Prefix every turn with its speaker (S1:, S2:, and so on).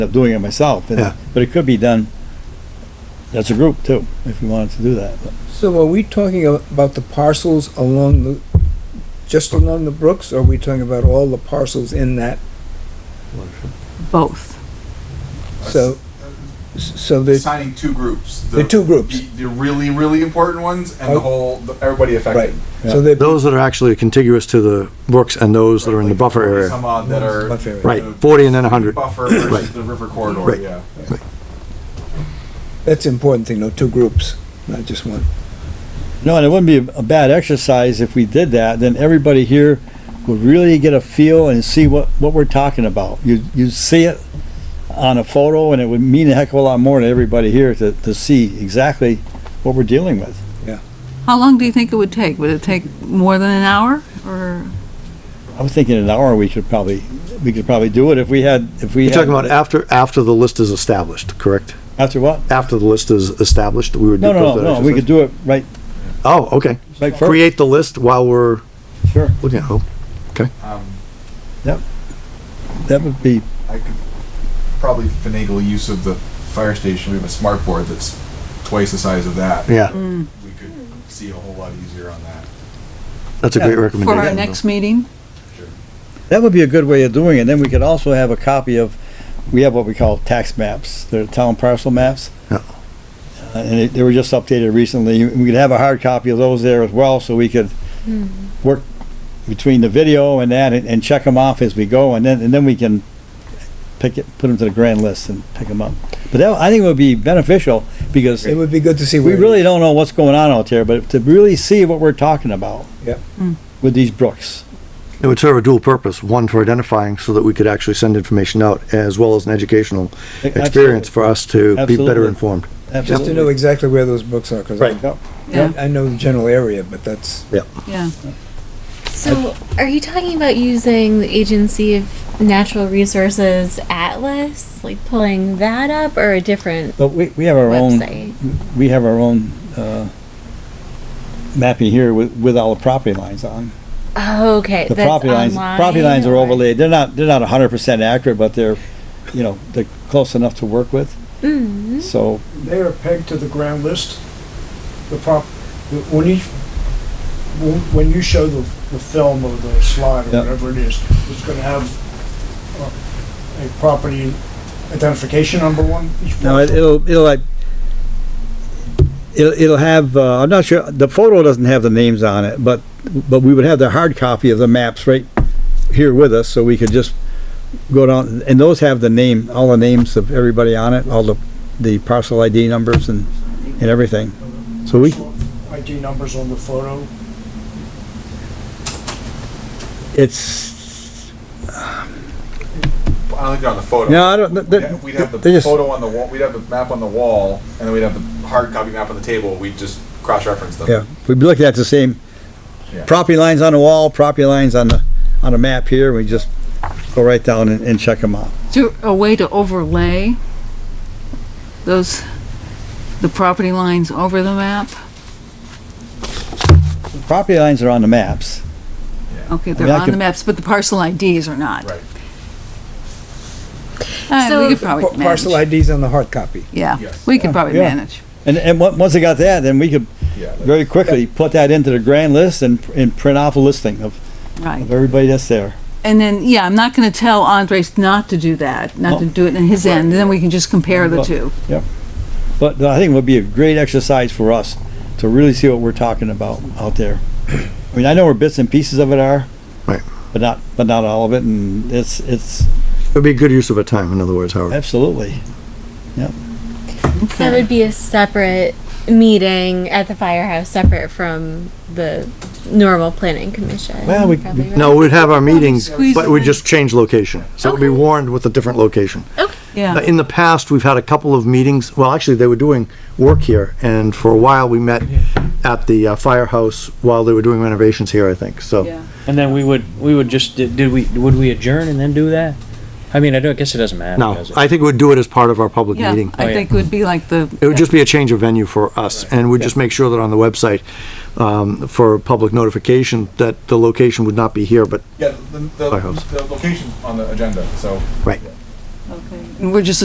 S1: up doing it myself, and-
S2: Yeah.
S1: but it could be done as a group too, if you wanted to do that.
S3: So are we talking a- about the parcels along the, just along the brooks, or are we talking about all the parcels in that?
S4: both.
S3: So, so there's,
S5: signing two groups.
S3: They're two groups.
S5: The, the really, really important ones and
S3: Oh.
S5: the whole, the, everybody
S3: right,
S5: affected.
S3: so they're,
S2: Those that are actually contiguous to the brooks and those that are in the
S5: Like
S2: buffer
S5: 40
S2: area.
S5: Some odd that are.
S3: Buffer area.
S2: Right,
S5: the
S2: 40 and then 100.
S5: Buffer
S2: Right.
S5: versus the river corridor,
S2: Right.
S5: yeah.
S3: that's an important thing, though, two groups, not just one.
S1: No, and it wouldn't be a bad exercise if we did that, then everybody here would really get a feel and see what, what we're talking about. You, you see it on a photo and it would mean a heck of a lot more to everybody here to, to see exactly what we're dealing with.
S4: How long do you think it would take? Would it take more than an hour or?
S1: I was thinking an hour, we could probably, we could probably do it if we had, if we.
S2: You're
S1: had-
S2: talking about after, after the list is established, correct?
S1: After what?
S2: After the list is established, we would do.
S1: No, no,
S2: both
S1: no, no,
S2: of
S1: we
S2: those
S1: could do it right,
S2: exercises? Oh, okay.
S1: right first,
S2: Create the list while we're
S1: sure.
S2: looking oh, at it.
S5: Um,
S1: That would be,
S5: I could probably finagle use of the fire station. We have a smart board that's twice the size of that.
S2: Yeah,
S4: Mm.
S5: We could see a whole lot easier on that.
S2: that's a great
S4: For
S2: recommendation.
S4: our next meeting?
S1: that would be a good way of doing it. Then we could also have a copy of, we have what we call tax maps, they're town parcel maps.
S2: Yeah.
S1: Uh, And it- they were just updated recently. We could have a hard copy of those there as well, so we could work between the video and that and, and check them off as we go, and then, and then we can pick it, put them to the grand list and pick them up. But that, I think would be beneficial, because
S3: It would be good to see.
S1: We
S3: where-
S1: really don't know what's going on out there, but to really see what we're talking about.
S3: Yep.
S1: With these brooks.
S2: It would serve a dual purpose, one for identifying so that we could actually send information out as well as an educational experience for us to be better
S1: Absolutely.
S2: informed.
S3: Just to know
S1: Absolutely.
S3: exactly where those books are, because I,
S1: Yep.
S4: Yeah,
S3: I know the general area, but that's,
S4: yeah.
S6: So, are you talking about using the Agency of Natural Resources Atlas, like pulling that up, or a different
S1: But we, we have our own,
S6: website?
S1: we have our own, uh, mapping here with, with all the property lines on.
S6: Oh, okay.
S1: The
S6: that's
S1: property lines,
S6: online,
S1: property lines are
S6: or-
S1: overlaid. They're not, they're not hundred percent accurate, but they're, you know, they're close enough to work with.
S6: Mm,
S1: So
S7: They are pegged to the ground list. The prop, the- when you, when when you show the, the film or the slide
S1: Yeah.
S7: or whatever it is, it's gonna have uh, a property identification number one. each
S1: No, it-
S7: parcel.
S1: it'll, it'll like, it'll, it'll have, uh, I'm not sure, the photo doesn't have the names on it, but, but we would have the hard copy of the maps right here with us, so we could just go down, and those have the name, all the names of everybody on it, all the, the parcel ID numbers and, and everything. So we,
S7: ID numbers on the photo.
S1: it's,
S5: I don't think they're on the photo.
S1: no, I don't,
S5: We'd ha- we'd
S1: they're,
S5: have the
S1: they're just,
S5: photo on the wall. We'd have the map on the wall, and then we'd have the hard copy map on the table. We'd just cross-reference them.
S1: yeah, we'd be looking at the same
S5: Yeah.
S1: property lines on the wall, property lines on the, on the map here, we just go right down and, and check them out.
S4: Is there a way to overlay those, the property lines over the map?
S1: Property lines are on the maps.
S4: Okay,
S1: mean,
S4: they're
S1: I
S4: on the
S1: could-
S4: maps, but the parcel IDs are not.
S5: Right.
S4: Uh,
S6: So-
S4: we could probably
S3: Pa- parcel
S4: manage.
S3: IDs on the hard copy.
S4: Yeah,
S5: Yes.
S4: we could probably
S1: Yeah.
S4: manage.
S1: And, and on- once they got that, then we could
S5: Yeah. that-
S1: very quickly put that into the grand list and, and print off a listing of,
S4: Right.
S1: of everybody that's there.
S4: And then, yeah, I'm not gonna tell Andres not to do that, not to do it in his end, and then we can just compare the
S1: Well-
S4: two.
S1: But I think it would be a great exercise for us to really see what we're talking about out there. I mean, I know where bits and pieces of it are.
S2: Right.
S1: But not, but not all of it, and it's, it's,
S2: It'd be a good use of our time, in other words, Howard.
S1: absolutely.
S6: So it would be a separate meeting at the firehouse, separate from the normal planning commission.
S1: Well, we-
S6: probably, right?
S2: No, we'd have our meetings,
S4: Squeeze
S2: but
S4: it
S2: we'd
S4: in.
S2: just change location. So it'd be
S6: Okay.
S2: warned with a different location.
S4: Yeah.
S2: Now, In the past, we've had a couple of meetings, well, actually, they were doing work here, and for a while, we met at the uh, firehouse while they were doing renovations here, I think, so.
S4: Yeah.
S8: And then we would, we would just, did, did we, would we adjourn and then do that? I mean, I don't, I guess it doesn't matter.
S2: No,
S8: does it?
S2: I think we'd do it as part of our public
S4: Yeah,
S2: meeting.
S8: Oh,
S4: I
S8: yeah.
S4: think it would be like the.
S2: It would just be a change of venue for us, and we'd just make sure that on the website, um, for public notification, that the location would not be here, but,
S5: Yeah, the, the,
S2: Firehouse.
S5: the location's on the agenda, so.
S2: right.
S4: Okay. We're just